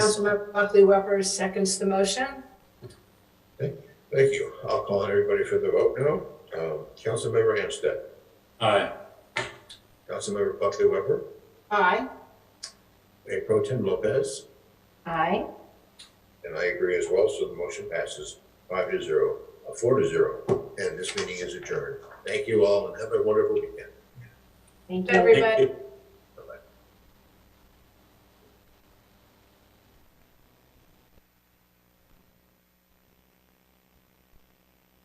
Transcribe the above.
Councilmember Buckley Weber seconds the motion. Thank you. I'll call on everybody for the vote now. Um, Councilmember Amstad, Aye. Councilmember Buckley Weber, Aye. Mayor Pro Tem Lopez, Aye. and I agree as well, so the motion passes five to zero, uh, four to zero, and this meeting is adjourned. Thank you all and have a wonderful weekend. Thank you. Thank you.